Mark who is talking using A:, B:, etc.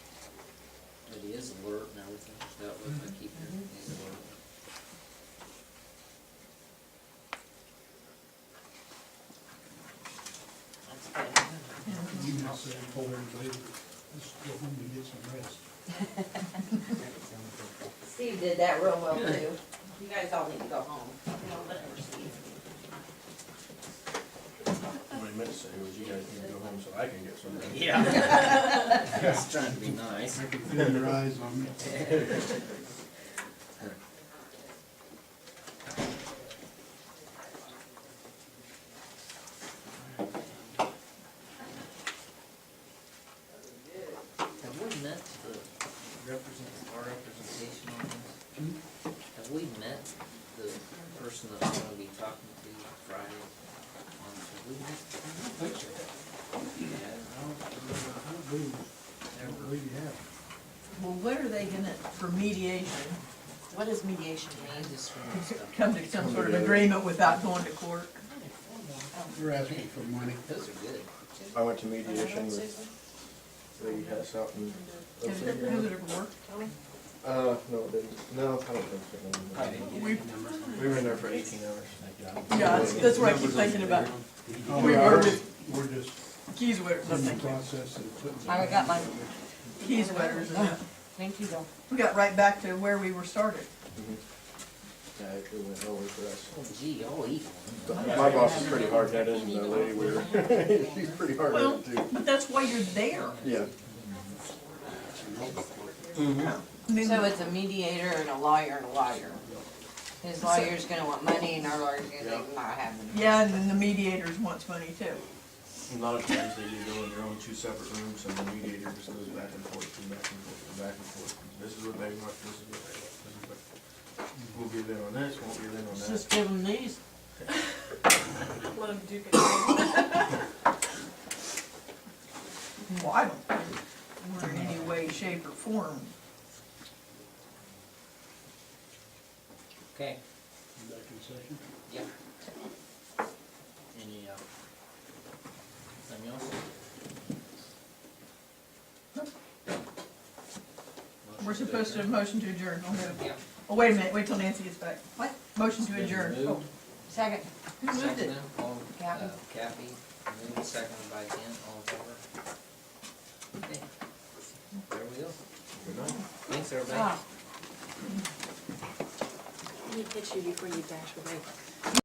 A: his alert and everything, so that way I keep your name alert. That's good.
B: You can say, and told everybody, let's go home and get some rest.
C: Steve did that real well too. You guys all need to go home. You know, whatever, Steve.
D: What I meant to say was you guys need to go home so I can get some rest.
A: Yeah. Just trying to be nice.
B: I can feel your eyes on me.
A: Have we met the represent, our representation on this? Have we met the person that I'm gonna be talking to Friday? on- Have we met?
B: Thanks, sir.
A: Yeah,
B: I don't- I don't believe, I don't
A: never.
B: believe you have.
E: Well, what are they gonna, for mediation, what does mediation
A: I
E: mean?
A: just wanna stop.
E: Come to some sort of agreement without going to court?
B: You're asking for money.
A: Those are good.
D: I went to mediation with Lady Hess out in.
E: Has it ever, has it ever worked?
D: Uh, no, it didn't. No, I don't think so. no.
E: We-
D: We were in there for eighteen hours.
E: Yeah, that's, that's what I keep thinking about,
B: Oh,
E: We
B: are-
E: are with-
B: We're just
E: keys wetters, I'm
B: in the
E: thinking,
B: process of putting.
F: I got mine.
E: keys wetters, and that.
F: Thank you, though.
E: we got right back to where we were started.
D: Yeah, it went nowhere for us.
A: Oh gee, I'll eat one.
D: My boss is pretty hard headed and the lady we were, she's pretty hard
E: Well,
D: headed too.
E: but that's why you're there.
D: Yeah. Mm-hmm.
E: I mean,
F: So it's a mediator and a lawyer and a lawyer. His lawyer's gonna want money and our lawyer's gonna think not having it.
E: Yeah, and then the mediators wants money too.
D: A lot of times they do go in their own two separate rooms and the mediator just goes back and forth and back and forth and back and forth. This is what they want, this is what they want, this is what. We'll give in on this, won't give in on that.
F: give him these.
G: Let him do it.
E: Well, I don't think we're in any way, shape, or form.
A: Okay,
B: Back in session.
A: yeah. Any, uh, something else?
E: We're supposed to motion to adjourn, I'll move.
A: Yeah.
E: Oh, wait a minute, wait till Nancy gets back. What? Motion to
A: Been
E: adjourn.
A: moved.
E: Oh,
F: Second.
E: Who moved it?
A: Seconded, all, uh,
F: Kathy.
A: Kathy, moved, seconded by Ken, all in favor? Okay. There we go.
D: Good night.
A: Thanks, everybody.
F: Ah.
G: Let me hit you before you dash away.